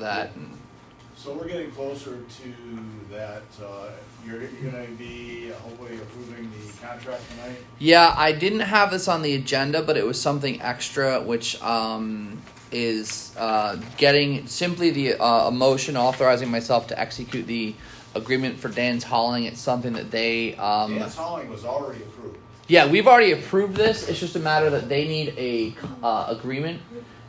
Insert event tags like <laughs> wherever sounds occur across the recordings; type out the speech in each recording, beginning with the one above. that. and- So we're getting closer to that, uh, you're, you're gonna be hopefully approving the contract tonight? Yeah, I didn't have this on the agenda, but it was something extra, which um, is uh, getting simply the uh, a motion authorizing myself to execute the agreement for Dan's hauling. It's something that they. Um, Dance hauling was already approved. Yeah, we've already approved this. It's just a matter that they need a uh, agreement,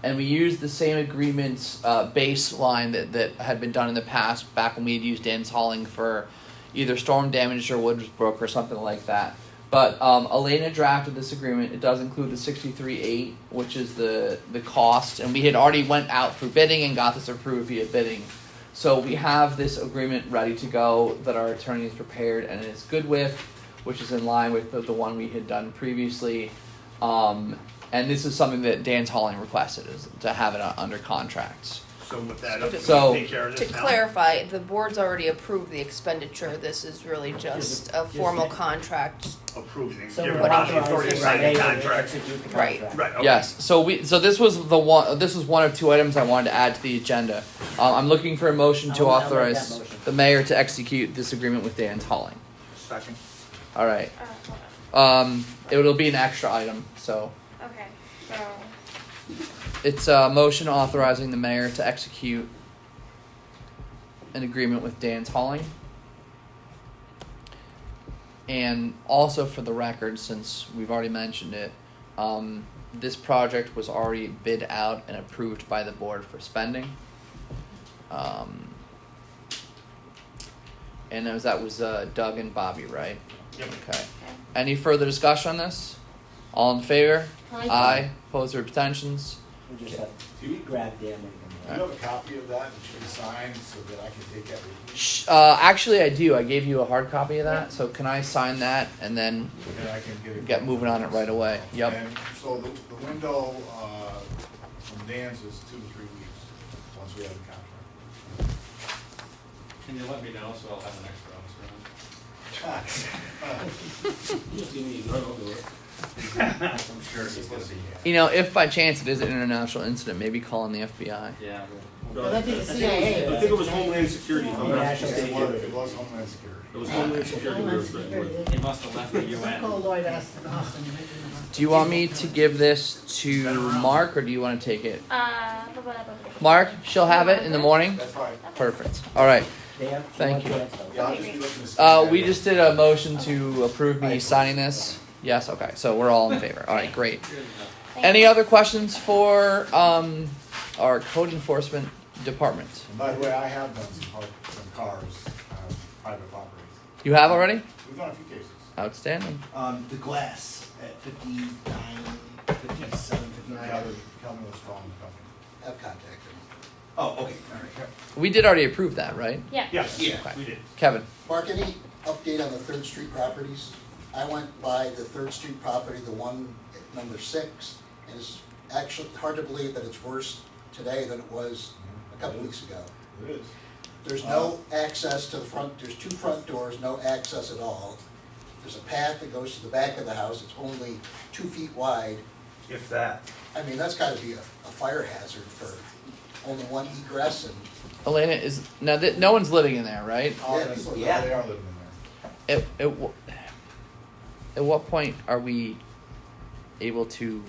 and we used the same agreements uh, baseline that that had been done in the past. Back when we had used Dan's hauling for either storm damage or woods broke or something like that. But um, Elena drafted this agreement. It does include the sixty three eight, which is the the cost, and we had already went out for bidding and got this approved via bidding. So we have this agreement ready to go that our attorney has prepared and is good with, which is in line with the, the one we had done previously. Um, and this is something that Dan's Hauling requested is to have it uh, under contract. So with that, we So- take care of To this now? clarify, the board's already approved the expenditure, this is really just a formal contract. Approve and So give we're Ron the authority to authorizing sign Renee the to contract. execute the Right. contract. Right, okay. Yes. So we so this was the one this was one of two items I wanted to add to the agenda. Uh, I'm looking for a motion to I'll- I'll make that authorize motion. the mayor to execute this agreement with Dan's Hauling. Second. All right. Uh, hold on. Um, it'll be an extra item. So Okay, so It's a motion authorizing the mayor to execute an agreement with Dan's Hauling. And also for the record, since we've already mentioned it, um, this project was already bid out and approved by the board for spending. Um, and that was, that was uh, Doug and Bobby, right? Yep. Okay. Any further discussion on this? All in favor? Aye. Aye. Opposed or abstentions? We just have Do you, to grab Dan and. do you have a copy of that that you can sign so that I can take that with Sh- Uh, actually, I do. I gave you a hard copy of that, so can I sign that and then me? And I can get it. get moving on it right away? Yep. And so the, the window, uh, from Dan's is two to three weeks, once we have the contract. Can you let me know so I'll have an extra officer on? <laughs> <laughs> I'm sure he's gonna be here. You know, if by chance it is an international incident, maybe calling the FBI. Yeah. Well, that'd be the CIA. I think it was Homeland Security, if I'm not National It mistaken. was- It was Homeland Security. It was Homeland Security. we were Homeland threatened Security. with. He must have left the Call UN. Lloyd Austin, Austin. Do you want me to give this to Mark or do you want to take it? uh, blah, blah, blah, blah, blah. Mark, she'll have it in the morning. That's fine. Perfect. All right. They have. Thank you. Yeah, I'll just be looking to see. Uh, we just did a motion to approve me signing this. Yes. Okay. So we're all in favor. All right. Great. Good enough. Thank Any you. other questions for um, our code enforcement department? And By the way, I have done some, car- some cars, uh, private properties. You have already? We've done a few cases. Outstanding. Um, the glass at 59, 57, 59. Kelvin, Kelvin was calling the company. I've contacted him. Oh, okay, all right. We did already approve that, right? Yeah. Yes, Okay. we did. Kevin. Mark, any update on the Third Street properties? I went by the Third Street property, the one at number six, and it's actually hard to believe that it's worse today than it was a couple weeks ago. It is. There's no access to the front, there's two front doors, no access at all. There's a path that goes to the back of the house, it's only two feet wide. If that. I mean, that's gotta be a, a fire hazard for only one egress and Elena is now that no one's living in there, right? Oh, that's- Yeah. They are living in there. At, at, wh- at what point are we able to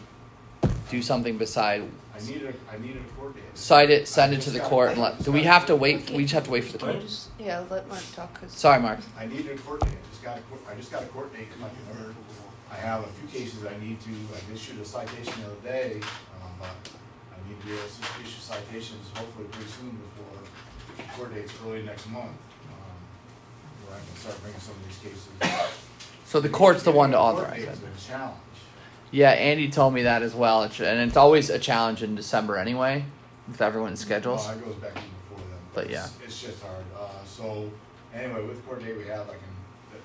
do something beside I need a, I need a court date. cite it, send it to the court, and let? Do we have to wait? We just have to wait for the court. Yeah, let Mark talk, 'cause- Sorry, Mark. I need a court date, I just got a, court- I just got a court date, like, in order. I have a few cases I need to, I issued a citation the other day, um, but I need to be able to issue citations hopefully pretty soon before court dates early next month. um, Where I can start bringing some of these cases. So the court's the one to Court authorize it. date's a challenge. Yeah, Andy told me that as well, It's- and it's always a challenge in December anyway, with everyone's schedules. Well, it goes back even before then. But it's- It's just hard. Uh, so, anyway, with court date we have, I can, that,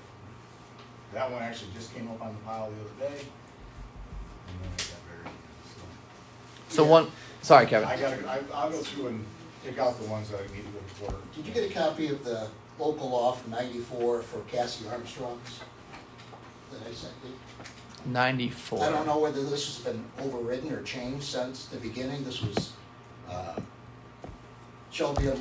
that one actually just came up on the pile the other day. And then it got buried, so. So one, sorry, Kevin. I gotta, I, I'll go through and pick out the ones that I need to go to court. Did you get a copy of the local law from ninety-four for Cassie Armstrong's? That I sent you? Ninety-four. I don't know whether this has been overridden or changed since the beginning, this was, uh, shall be a